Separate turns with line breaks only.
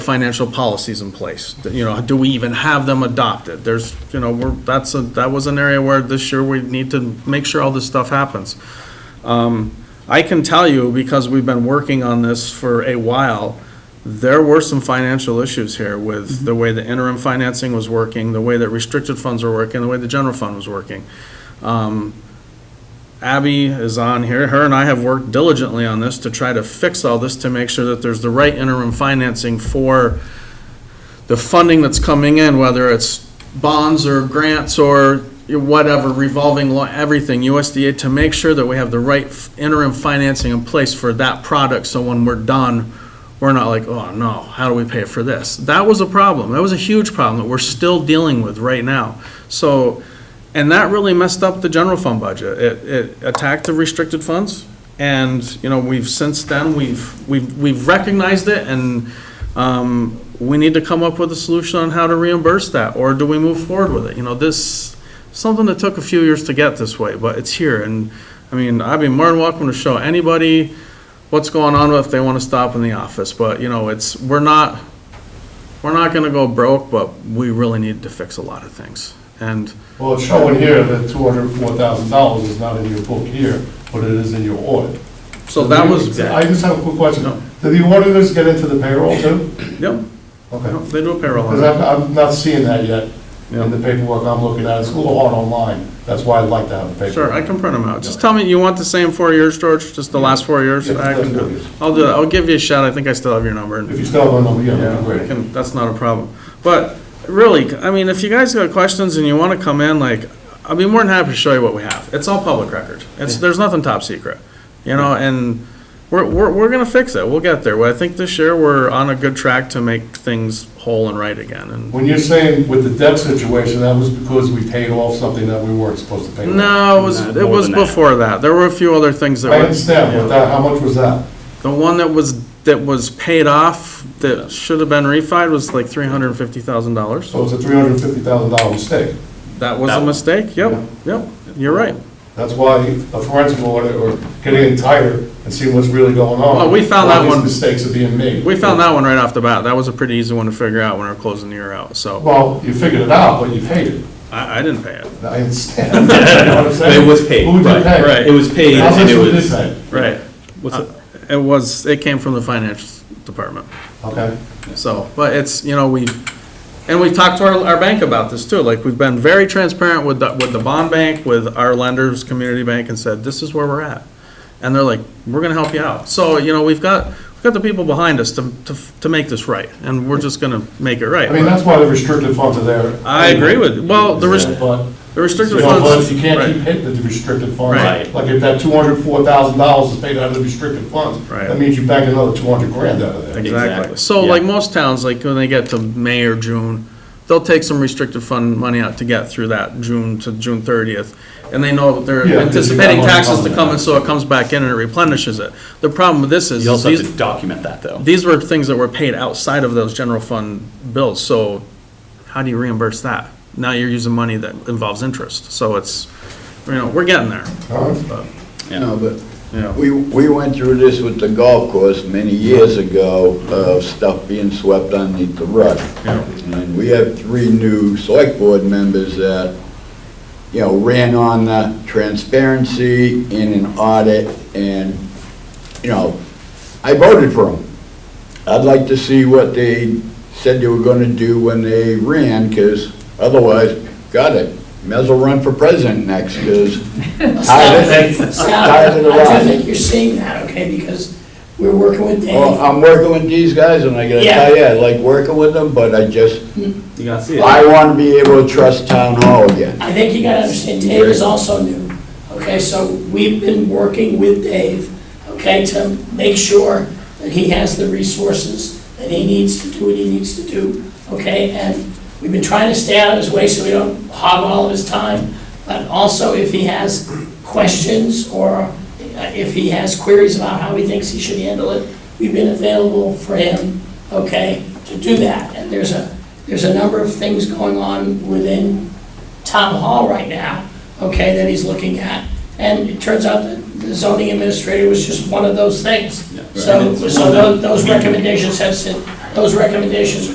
financial policies in place? You know, do we even have them adopted? There's, you know, we're, that's, a that was an area where this year we need to make sure all this stuff happens. Um, I can tell you, because we've been working on this for a while, there were some financial issues here with the way the interim financing was working, the way that restricted funds were working, the way the general fund was working. Um, Abby is on here. Her and I have worked diligently on this to try to fix all this, to make sure that there's the right interim financing for the funding that's coming in, whether it's bonds or grants or whatever, revolving law, everything, USDA, to make sure that we have the right interim financing in place for that product, so when we're done, we're not like, oh no, how do we pay for this? That was a problem. That was a huge problem that we're still dealing with right now. So, and that really messed up the general fund budget. It, it attacked the restricted funds. And, you know, we've, since then, we've, we've, we've recognized it and, um, we need to come up with a solution on how to reimburse that, or do we move forward with it? You know, this, something that took a few years to get this way, but it's here. And, I mean, I'd be more than welcome to show anybody what's going on if they want to stop in the office. But, you know, it's, we're not, we're not gonna go broke, but we really need to fix a lot of things. And
Well, it's showing here that two hundred and four thousand dollars is not in your book here, but it is in your audit.
so that was,
I just have a quick question.
No.
Do the auditors get into the payroll too?
yep,
Okay.
they do a payroll on
Because
it.
I'm, I'm not seeing that yet
Yeah.
in the paperwork I'm looking at. It's a little hard online. That's why I'd like to have the paperwork.
Sure, I can print them out. Just tell me, you want the same four years, George, just the last four years?
Yeah,
I can
that's
do
what it
it.
is.
I'll do that. I'll give you a shout. I think I still have your number.
If you still have a number, yeah,
Yeah,
that'd
I
be great.
can, that's not a problem. But really, I mean, if you guys got questions and you want to come in, like, I'd be more than happy to show you what we have. It's all public record. It's, there's nothing top secret, you know, and we're, we're, we're going to fix it. We'll get there. Well, I think this year we're on a good track to make things whole and right again. And
When you're saying with the debt situation, that was because we paid off something that we weren't supposed to pay off.
no, it was, it was before that. There were a few other things that
I
were,
understand, but that, how much was that?
the one that was, that was paid off, that should have been refied was like $350,000.
So it's a three hundred and fifty thousand dollar mistake.
That was a mistake. Yep, yep. You're right.
That's why a forensic audit or getting in tighter and seeing what's really going on.
Well, we found
why
that one-
These mistakes are being made.
We found that one right off the bat. That was a pretty easy one to figure out when we were closing the year out, so
Well, you figured it out, but you paid it.
I, I didn't pay it.
I understand. You know what I'm saying?
It was paid,
Who did
right,
pay?
right.
It was paid
How
and
much
it
was
was. uh,
this?
Right. It was, it came from the finance department,
Okay.
so, but it's, you know, we, and we talked to our, our bank about this too. Like, we've been very transparent with the, with the bond bank, with our lenders, community bank, and said, this is where we're at. And they're like, we're gonna help you out. So, you know, we've got, we've got the people behind us to, to, to make this right, and we're just gonna make it right.
I mean, that's why the restricted funds are there.
I agree with, you. well, the rest,
But,
the
you
restricted
know,
funds.
but you can't
right.
keep hitting the restricted funds.
Right.
Like if that two hundred four thousand dollars is paid out of the restricted funds,
Right.
that means you back another two hundred grand out of there.
Exactly.
Exactly.
So like
Yeah.
most towns, like when they get to May or June, they'll take some restricted fund money out to get through that June to June thirtieth. And they know they're
Yeah, 'cause you
anticipating
got money
taxes to
coming.
come and so it comes back in and it replenishes it. The problem with this is,
You
is
also have
these,
to document that, though.
these were things that were paid outside of those general fund bills, so how do you reimburse that? Now you're using money that involves interest, so it's, you know, we're getting there.
All right?
No,
Yeah.
but we, we went through this with the golf course many years ago, of stuff being swept underneath the rug.
Yeah.
And we have three new select board members that, you know, ran on the transparency in an audit and, you know, I voted for them. I'd like to see what they said they were gonna do when they ran, because otherwise, got it, may as well run for president next, because tired of,
Scott,
tired of the
I don't
ride.
think you're seeing that, okay, because we're working with
Well,
Danny.
I'm working with these guys, and I gotta
Yeah.
tell you, I like working with them, but I just,
You gotta see
I wanna be able to trust town hall again.
I think you gotta understand, Dave is also new, okay, so we've been working with Dave, okay, to make sure that he has the resources that he needs to do what he needs to do, okay, and we've been trying to stay out of his way so we don't hog all of his time, but also if he has questions or uh, if he has queries about how he thinks he should handle it, we've been available for him, okay, to do that, and there's a, there's a number of things going on within town hall right now, okay, that he's looking at. And it turns out that the zoning administrator was just one of those things. So, so tho- those recommendations have sin- Those recommendations are